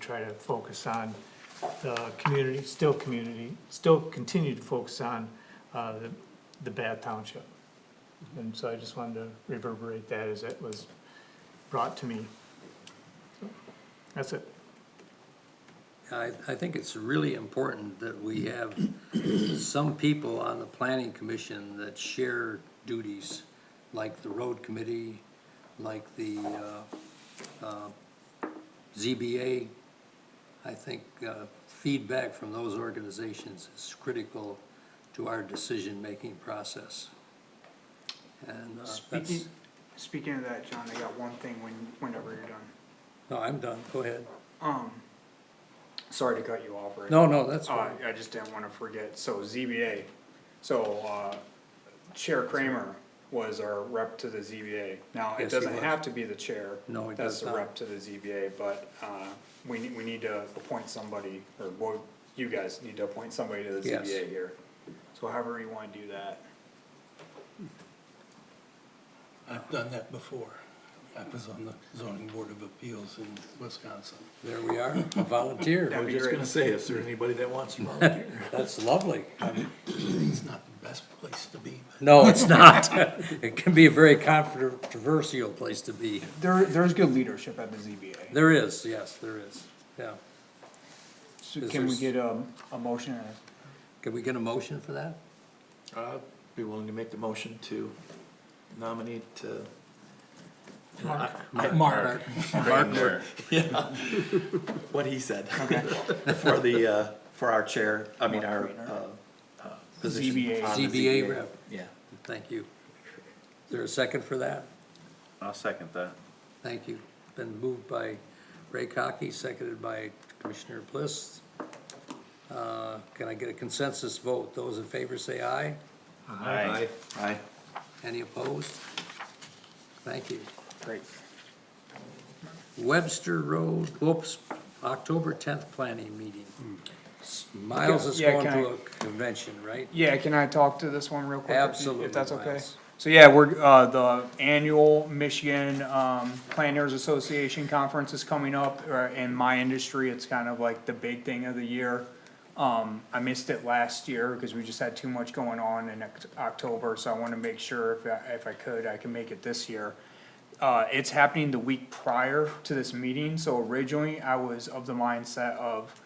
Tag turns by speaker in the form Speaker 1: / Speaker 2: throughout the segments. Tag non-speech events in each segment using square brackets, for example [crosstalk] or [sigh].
Speaker 1: try to focus on the community, still community, still continue to focus on, uh, the, the bad township. And so I just wanted to reverberate that as it was brought to me. So, That's it.
Speaker 2: I, I think it's really important that we have some people on the planning commission that share duties, like the road committee, like the, uh, uh, ZBA. I think, uh, feedback from those organizations is critical to our decision-making process. And, uh, that's,
Speaker 3: Speaking, speaking of that, John, I got one thing when, whenever you're done.
Speaker 2: no, I'm done, go ahead.
Speaker 3: Um, sorry to cut you off, Rick.
Speaker 2: No, no, that's
Speaker 3: Uh,
Speaker 2: fine.
Speaker 3: I just didn't wanna forget, so ZBA, so, uh, Chair Kramer was our rep to the ZBA. Now, it
Speaker 2: Yes, he
Speaker 3: doesn't
Speaker 2: was.
Speaker 3: have to be the chair.
Speaker 2: No, it does
Speaker 3: That's
Speaker 2: not.
Speaker 3: the rep to the ZBA, but, uh, we need, we need to appoint somebody, or, well, you guys need to appoint somebody to the
Speaker 2: Yes.
Speaker 3: ZBA here. So however you wanna do that.
Speaker 4: I've done that before. I was on the zoning board of appeals in Wisconsin.
Speaker 2: There we are, a volunteer,
Speaker 3: That'd be
Speaker 4: Just
Speaker 3: great.
Speaker 4: gonna say, is there anybody that wants [laughs] to volunteer?
Speaker 2: that's lovely.
Speaker 4: It's not the best place to be, but
Speaker 2: No, [laughs] it's not. It can be a very controversial place to be.
Speaker 3: There, there's good leadership at the ZBA.
Speaker 2: There is, yes, there is, yeah.
Speaker 3: So
Speaker 2: Is
Speaker 3: can we
Speaker 2: there-
Speaker 3: get a, a motion and a
Speaker 2: Can we get a motion for that?
Speaker 4: I'd be willing to make the motion to nominate, uh.
Speaker 2: Uh,
Speaker 4: Mark. Mark. [laughs]
Speaker 5: Mark.
Speaker 4: What he said. [laughs] For the, uh, for our chair, I mean, our, uh, uh, position.
Speaker 3: ZBA.
Speaker 4: on the
Speaker 2: ZBA rep.
Speaker 4: Yeah.
Speaker 2: Thank you. Is there a second for that?
Speaker 5: I'll second that.
Speaker 2: Thank you. Been moved by Ray Cocky, seconded by Commissioner Bliss. Uh, Can I get a consensus vote? Those in favor say aye.
Speaker 5: Aye.
Speaker 4: Aye.
Speaker 2: Any opposed? Thank you.
Speaker 3: Great.
Speaker 2: Webster Road, whoops, October tenth planning meeting. Miles is
Speaker 3: Hmm. Yeah,
Speaker 2: going
Speaker 3: can
Speaker 2: to
Speaker 3: I-
Speaker 2: a convention, right?
Speaker 3: Yeah, can I talk to this one real quick? if you-
Speaker 2: Absolutely,
Speaker 3: If that's okay.
Speaker 2: Miles.
Speaker 3: So yeah, we're, uh, the annual Michigan, um, Planners Association Conference is coming up, or in my industry, it's kind of like the big thing of the year. Um, I missed it last year because we just had too much going on in Oct- October, so I wanna make sure if, I- if I could, I can make it this year. Uh, it's happening the week prior to this meeting, so originally I was of the mindset of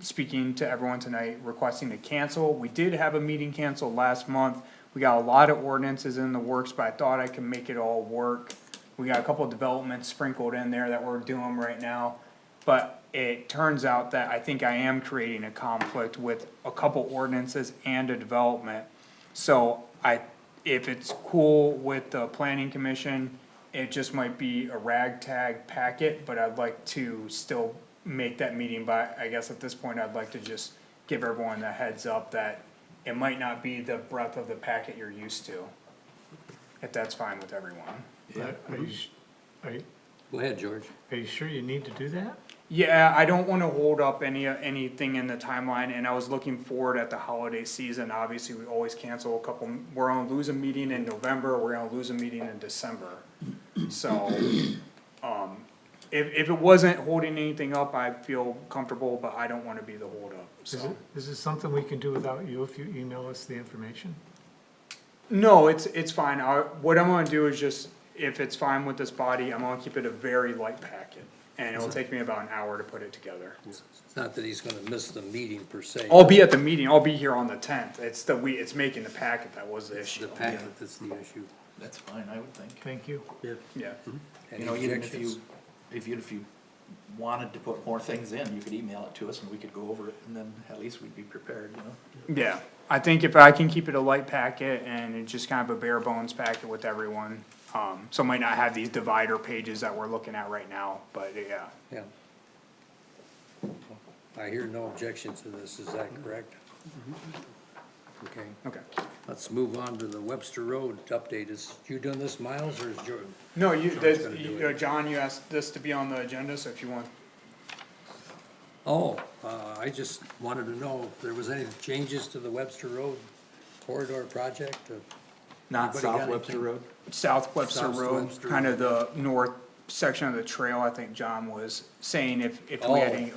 Speaker 3: speaking to everyone tonight requesting to cancel. We did have a meeting canceled last month. We got a lot of ordinances in the works, but I thought I could make it all work. We got a couple of developments sprinkled in there that we're doing right now. But it turns out that I think I am creating a conflict with a couple ordinances and a development. So I, if it's cool with the planning commission, it just might be a ragtag packet, but I'd like to still make that meeting, but I guess at this point, I'd like to just give everyone a heads up that it might not be the breadth of the packet you're used to. If that's fine with everyone.
Speaker 1: Are you, s- are you,
Speaker 2: Go ahead, George.
Speaker 1: are you sure you need to do that?
Speaker 3: Yeah, I don't wanna hold up any, anything in the timeline, and I was looking forward at the holiday season, obviously, we always cancel a couple, we're gonna lose a meeting in November, we're gonna lose a meeting in December. So, um, if, if it wasn't holding anything up, I feel comfortable, but I don't wanna be the holdup,
Speaker 1: Is
Speaker 3: so.
Speaker 1: it, is this something we can do without you if you email us the information?
Speaker 3: No, it's, it's fine, I, what I'm gonna do is just, if it's fine with this body, I'm gonna keep it a very light packet, and it'll take me about an hour to put it together.
Speaker 2: It's not that he's gonna miss the meeting per se.
Speaker 3: I'll be at the meeting, I'll be here on the tenth, it's the, we, it's making the packet that was the
Speaker 2: It's The
Speaker 3: issue,
Speaker 2: packet that's the issue.
Speaker 4: That's fine, I would think.
Speaker 1: Thank you.
Speaker 3: yeah.
Speaker 2: Any
Speaker 4: You know, even if
Speaker 2: objections?
Speaker 4: you, if you, if you wanted to put more things in, you could email it to us and we could go over it and then at least we'd be prepared, you know?
Speaker 3: Yeah, I think if I can keep it a light packet and it's just kind of a bare bones packet with everyone, um, so it might not have these divider pages that we're looking at right now, but yeah.
Speaker 2: Yeah. I hear no objection to this, is that
Speaker 3: Mm-hmm.
Speaker 2: correct? Okay,
Speaker 3: Okay,
Speaker 2: let's move on to the Webster Road update. Is you doing this, Miles, or is George?
Speaker 3: no, you,
Speaker 2: John's
Speaker 3: this,
Speaker 2: gonna do
Speaker 3: you, uh, John, you asked this to be on the agenda, so if you want,
Speaker 2: Oh, uh, I just wanted to know if there was any changes to the Webster Road corridor project, or
Speaker 4: Not
Speaker 2: Anybody got South Webster anything?
Speaker 4: Road?
Speaker 3: South Webster
Speaker 2: South
Speaker 3: Road,
Speaker 2: Webster.
Speaker 3: kind of the north section of the trail, I think John was saying if, if we had
Speaker 2: Oh.
Speaker 3: any